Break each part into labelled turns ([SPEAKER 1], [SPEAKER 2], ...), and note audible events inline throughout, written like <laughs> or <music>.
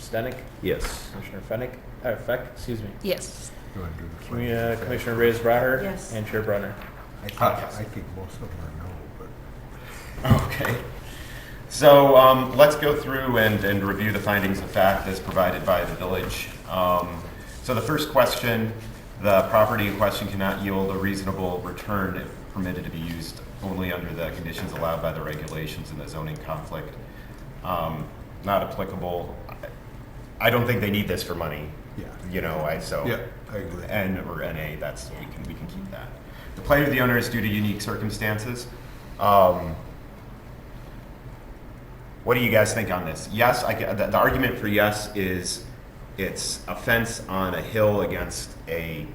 [SPEAKER 1] Stenick,
[SPEAKER 2] Yes.
[SPEAKER 1] Commissioner Fennick, uh, Feck, excuse me,
[SPEAKER 3] Yes.
[SPEAKER 4] You wanna do the
[SPEAKER 1] Commu-
[SPEAKER 4] flag?
[SPEAKER 1] uh, Commissioner Reyes Braher.
[SPEAKER 3] Yes.
[SPEAKER 1] And Chair Brunner.
[SPEAKER 4] I think, I think most of them are no, but
[SPEAKER 5] Okay. So um, let's go through and, and review the findings of fact as provided by the village. Um, So the first question, the property in question cannot yield a reasonable return if permitted to be used only under the conditions allowed by the regulations in the zoning conflict. Um, Not applicable. I- I don't think they need this for money.
[SPEAKER 4] Yeah.
[SPEAKER 5] You know, I, so.
[SPEAKER 4] Yeah, I agree.
[SPEAKER 5] N or NA, that's, we can, we can keep that. The plight of the owner is due to unique circumstances. Um, What do you guys think on this? Yes, I, ca- the, the argument for yes is it's a fence on a hill against a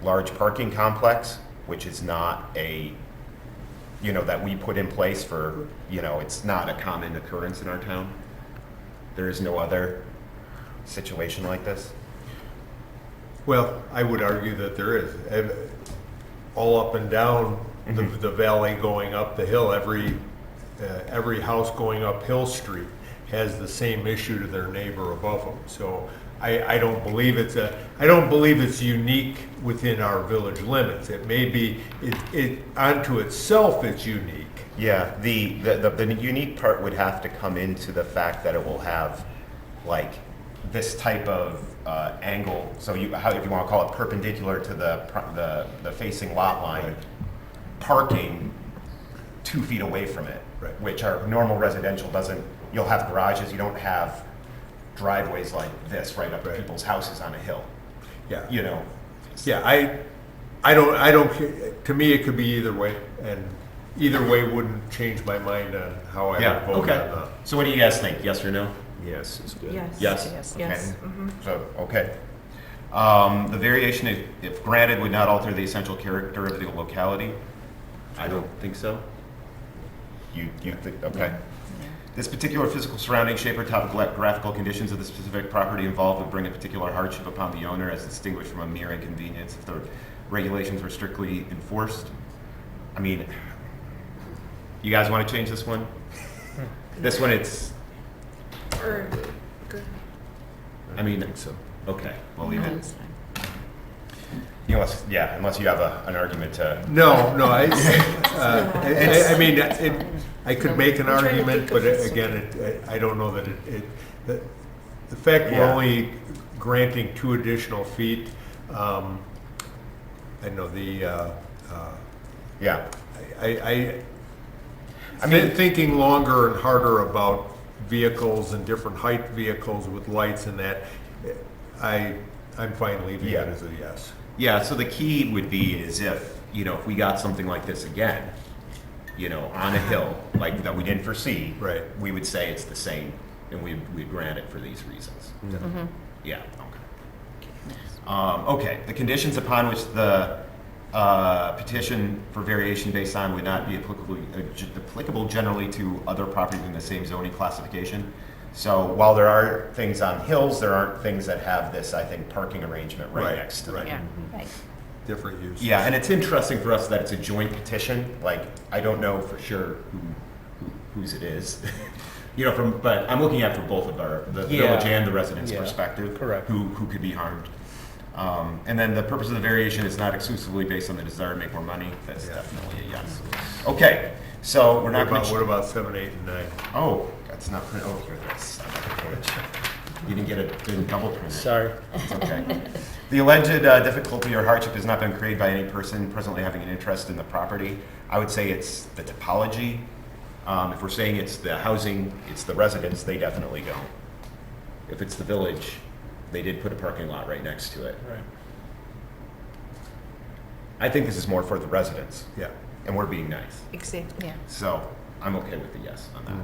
[SPEAKER 5] large parking complex, which is not a, you know, that we put in place for, you know, it's not a common occurrence in our town. There is no other situation like this.
[SPEAKER 4] Well, I would argue that there is. Ev- All up and down the, the valley going up the hill, every, uh, every house going up Hill Street has the same issue to their neighbor above them. So I, I don't believe it's a, I don't believe it's unique within our village limits. It may be, it, it, unto itself it's unique.
[SPEAKER 5] Yeah, the, the, the, the unique part would have to come into the fact that it will have like this type of uh, angle. So you, how, if you want to call it perpendicular to the, pro- the, the facing lot line, parking two feet away from it,
[SPEAKER 4] Right.
[SPEAKER 5] which our normal residential doesn't, you'll have garages, you don't have driveways like this right up to
[SPEAKER 4] Right.
[SPEAKER 5] people's houses on a hill,
[SPEAKER 4] Yeah.
[SPEAKER 5] you know?
[SPEAKER 4] Yeah, I, I don't, I don't, ca- to me, it could be either way, and either way wouldn't change my mind on how I
[SPEAKER 5] Yeah,
[SPEAKER 4] would vote on
[SPEAKER 5] okay.
[SPEAKER 4] that.
[SPEAKER 5] So what do you guys think, yes or no?
[SPEAKER 2] Yes is good.
[SPEAKER 3] Yes.
[SPEAKER 5] Yes.
[SPEAKER 3] Yes.
[SPEAKER 5] Okay. So, okay. Um, The variation, if- if granted, would not alter the essential character of the locality?
[SPEAKER 2] I don't think so.
[SPEAKER 5] You, you think, okay. This particular physical surrounding, shape, or topographical conditions of the specific property involved would bring a particular hardship upon the owner as distinguished from a mere inconvenience if the regulations were strictly enforced? I mean, you guys want to change this one? This one, it's,
[SPEAKER 3] Or,
[SPEAKER 5] I mean,
[SPEAKER 2] so.
[SPEAKER 5] okay, we'll leave it. Unless, yeah, unless you have a, an argument to,
[SPEAKER 4] No,
[SPEAKER 3] <laughs>
[SPEAKER 4] no, I, uh, I- I, I mean, it, I could make an
[SPEAKER 3] I'm trying to
[SPEAKER 4] argument,
[SPEAKER 3] think
[SPEAKER 4] but
[SPEAKER 3] of
[SPEAKER 4] it-
[SPEAKER 3] this.
[SPEAKER 4] again, it, I I don't know that it, it, the- the fact we're
[SPEAKER 5] Yeah.
[SPEAKER 4] only granting two additional feet, um, I know the, uh, uh,
[SPEAKER 5] yeah.
[SPEAKER 4] I, I, I mean, thinking longer and harder about vehicles and different height vehicles with lights and that, I, I'm fine leaving
[SPEAKER 5] Yeah.
[SPEAKER 4] it as a yes.
[SPEAKER 5] Yeah, so the key would be is if, you know, if we got something like this again, you know, on a hill, like that we didn't foresee.
[SPEAKER 4] Right.
[SPEAKER 5] We would say it's the same and we, we'd grant it for these reasons. Yeah, okay. Um, okay, the conditions upon which the, uh, petition for variation based on would not be applicable, uh, ge- applicable generally to other properties in the same zoning classification. So while there are things on hills, there aren't things that have this, I think, parking arrangement right
[SPEAKER 4] Right,
[SPEAKER 5] next to them.
[SPEAKER 4] right.
[SPEAKER 3] yeah, right.
[SPEAKER 4] Different use.
[SPEAKER 5] Yeah, and it's interesting for us that it's a joint petition. Like, I don't know for sure who, who whose it is. <laughs> you know, from but I'm looking at it from both of our the
[SPEAKER 1] Yeah.
[SPEAKER 5] village and the residents'
[SPEAKER 1] Yeah,
[SPEAKER 5] perspective.
[SPEAKER 1] correct.
[SPEAKER 5] Who who could be harmed? Um, and then the purpose of the variation is not exclusively based on the desire to make more money. That's
[SPEAKER 4] Yeah.
[SPEAKER 5] definitely a yes. Okay, so we're
[SPEAKER 4] What
[SPEAKER 5] not going
[SPEAKER 4] about, what
[SPEAKER 5] to.
[SPEAKER 4] about seven, eight, and nine?
[SPEAKER 5] Oh, that's not print. Oh, here it is. <laughs> You didn't get a didn't double print. it.
[SPEAKER 1] Sorry.
[SPEAKER 5] Okay. <laughs> The alleged uh, difficulty or hardship has not been created by any person presently having an interest in the property. I would say it's the topology. Um, If we're saying it's the housing, it's the residents, they definitely go. If it's the village, they did put a parking lot right next to it.
[SPEAKER 1] Right.
[SPEAKER 5] I think this is more for the residents,
[SPEAKER 4] Yeah.
[SPEAKER 5] and we're being nice.
[SPEAKER 3] Exactly. Yeah.
[SPEAKER 5] So I'm okay with the yes on that.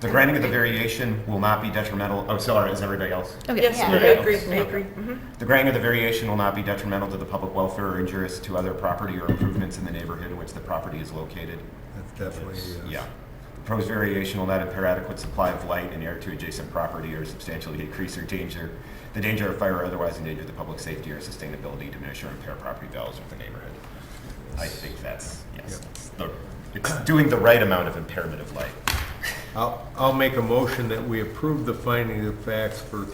[SPEAKER 5] The granting of the variation will not be detrimental, oh, sorry, is everybody else?
[SPEAKER 3] Okay.
[SPEAKER 6] Yes, I
[SPEAKER 5] Yeah.
[SPEAKER 6] agree, I
[SPEAKER 5] Yeah.
[SPEAKER 6] agree. Mhm.
[SPEAKER 5] The granting of the variation will not be detrimental to the public welfare or injurious to other property or improvements in the neighborhood in which the property is located.
[SPEAKER 4] That's definitely a
[SPEAKER 5] Yeah.
[SPEAKER 4] yes.
[SPEAKER 5] The proposed variation will not impair adequate supply of light and air to adjacent property or substantially decrease or danger, the danger of fire or otherwise endanger the public safety or sustainability, diminish or impair property values of the neighborhood. I think that's, yes,
[SPEAKER 4] Yep.
[SPEAKER 5] it's the- it's doing the right amount of impairment of light.
[SPEAKER 4] I'll, I'll make a motion that we approve the finding of facts for